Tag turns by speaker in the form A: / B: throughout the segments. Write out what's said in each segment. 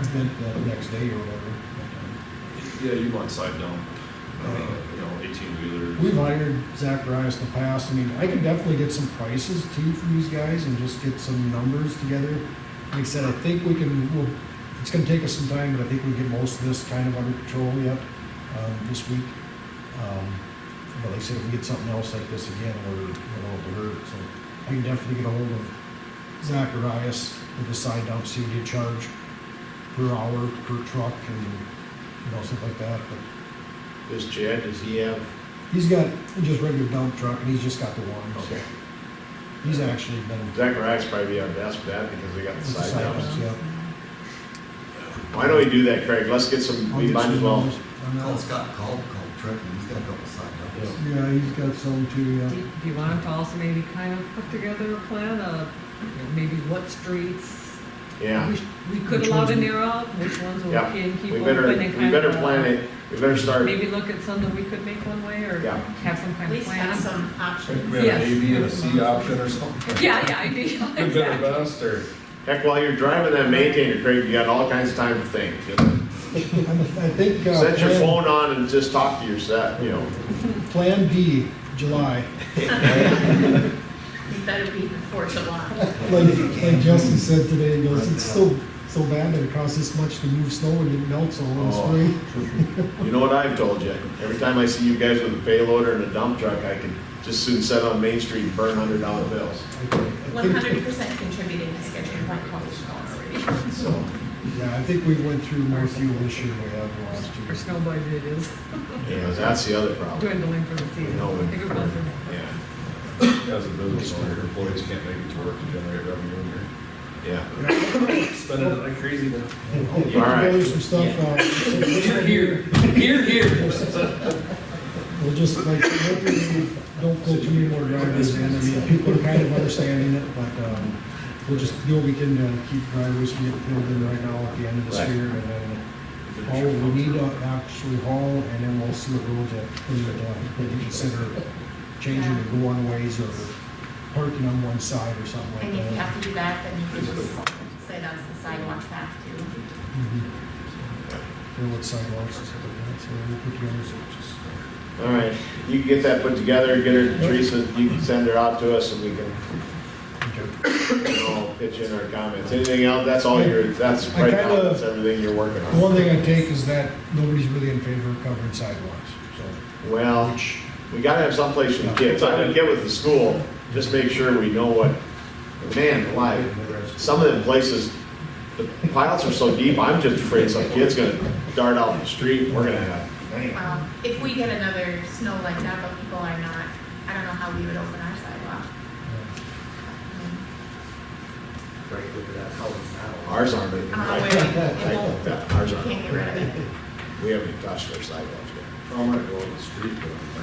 A: event that next day or whatever.
B: Yeah, you want side dome, uh, you know, eighteen wheelers.
A: We've hired Zacharias in the past, I mean, I can definitely get some prices too from these guys and just get some numbers together. Like I said, I think we can, we'll, it's gonna take us some time, but I think we get most of this kind of under control yet, um, this week. Um, But like I said, if we get something else like this again, we're, we're all to hurt, so I can definitely get a hold of Zacharias and decide to see what he charge per hour, per truck and, you know, stuff like that, but
C: This Chad, does he have?
A: He's got just regular dump truck, and he's just got the one. so He's actually been.
C: Zacharias probably our best bet because they got the
A: with the
C: side
A: sidewalks,
C: downs.
A: yeah.
C: Why don't we do that, Craig? Let's get some,
A: I'll
C: we
A: get
C: might
A: some
C: as well.
A: numbers on that.
D: Call Scott Culp, Culp Trick, and he's got a couple side notes.
A: Yeah, he's got some too,
E: Do
A: yeah.
E: you- do you want him to also maybe kind of put together a plan of, you know, maybe what streets?
C: Yeah,
E: we sh- We could
A: Which
E: allow
A: ones
E: to
A: we-
E: narrow out, which ones we
C: Yeah,
E: can keep
C: we
E: open
C: better,
E: and
C: we
E: kind of. uh,
C: better plan it, we better start,
E: Maybe look at some that we could make one way or
C: Yeah.
E: have some
F: At
E: kind of
F: least
E: plan.
F: have some options.
E: we have an Yes. A, B, and a C
D: option or something.
E: Yeah, yeah, I do.
D: Good, better, best, or?
C: heck, while you're driving that maintainer, Craig, you got all kinds of time to think.
A: And I think. uh,
C: Set your
A: plan-
C: phone on and just talk to your set, you know.
A: Plan B, July.
F: It better be before July.
A: Like, like Justin said today, he goes, it's so, so bad that it costs this much to move snow and it melts all in
C: Oh.
A: spring.
C: You know what I've told you? Every time I see you guys with a payloader and a dump truck, I can just soon set on Main Street and burn hundred dollar bills.
A: I think- I
F: One
A: think-
F: hundred percent contributing to scheduling by college already.
C: So,
A: Yeah, I think we went through more fuel this year than we have last year.
E: Our snow budget is
C: you know, that's the other problem.
E: dwindling for the season.
C: know, and-
E: If it wasn't.
C: Yeah,
G: As a business owner, your employees can't make it to work to generate revenue, and you're
C: yeah.
G: spending it like crazy then.
A: I'll put
C: All right.
A: together some stuff, uh,
G: Here, here, here, here.
A: We'll just like, hopefully, we don't go too many more drivers in, I mean, people are kind of understanding it, but, um, we'll just do what we can to keep drivers from getting filled in right now at the end of this
C: Right.
A: year, and then haul what we need to actually haul, and then we'll see what roads that we would, uh, maybe consider changing to go one ways or parking on one side or something
F: And
A: like
F: if you
A: that.
F: have to do that, then you can just say that's the sidewalk path too.
A: Mhm. Or what sidewalks and stuff like that, so we'll put together some,
C: All right, you can get that put together, get her, Teresa, you can send her out to us and we can,
A: okay.
C: you know, pitch in our comments. Anything else, that's all you're, that's
A: I
C: right now,
A: kinda-
C: that's everything you're working
A: The
C: on.
A: One thing I take is that nobody's really in favor of covering sidewalks, so,
C: Well,
A: which,
C: we gotta have someplace for the kids. I'm gonna get with the school, just make sure we know what, man, alive. Some of the places, the piles are so deep, I'm just afraid some kid's gonna dart out in the street and we're gonna have,
F: Well, Um, if we get another snow like that, but people are not, I don't know how we would open our sidewalk.
A: uh,
F: I mean,
D: Right, look at that, how it's now.
C: ours aren't. even- I-
F: I don't know where we-
C: I-
F: it won't-
C: yeah, Ours
F: we Uh, Can't
C: aren't,
F: get rid of it.
A: um,
C: we haven't touched our sidewalks yet.
G: Oh, I might go on the street, but my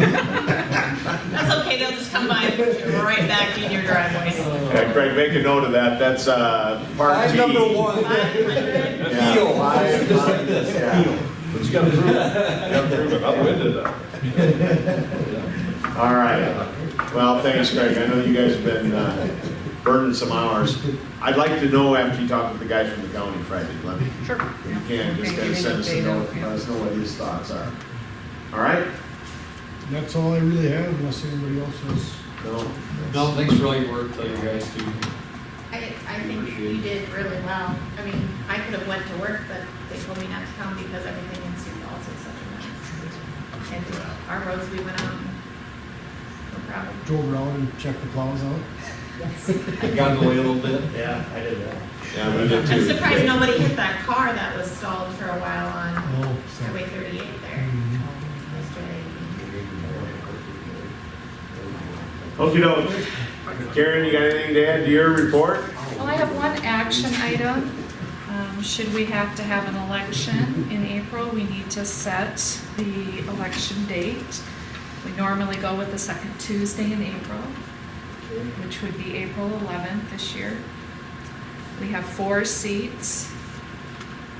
G: sidewalks.
F: That's okay, they'll just come by and put you right back in your driveway.
C: Yeah, Craig, make a note of that, that's, uh, part G.
D: one.
F: Five hundred
C: Yeah.
D: Heel.
C: Five,
D: Just
C: five,
D: like this.
C: yeah.
G: But you gotta prove it, you gotta prove it, upwinded that.
C: All right, well, thanks, Craig, I know you guys have been, uh, burning some hours. I'd like to know after you talk with the guy from the county Friday, let me,
E: Sure.
C: if you can, just kind
E: Okay,
C: of
E: give
C: send us a
E: an
C: note,
E: update,
C: let
E: yeah.
C: us know what his thoughts are. All right?
A: that's all I really have, unless anybody else has.
C: No?
H: No, thanks for all your work that you guys do.
F: I, I think you did really well. I mean, I could have went to work, but they told me not to come because everything in Sioux Falls is such a mess. And our roads, we went on, no problem.
A: Drove around and checked the plows out.
H: Got in the way a little bit.
D: Yeah, I did that.
C: Yeah, we did too.
F: I'm surprised nobody hit that car that was stalled for a while on
A: Oh, so.
F: Highway thirty-eight there.
A: Mhm.
F: yesterday.
C: Okey doke. Karen, you got anything to add to your report?
I: Well, I have one action item. Um, Should we have to have an election in April, we need to set the election date. We normally go with the second Tuesday in April, which would be April 11th this year. We have four seats.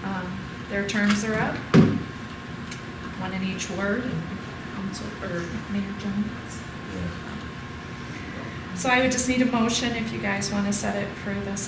I: Um, Their terms are up, one in each ward, and Council, or Mayor Jones. So I would just need a motion if you guys want to set it for the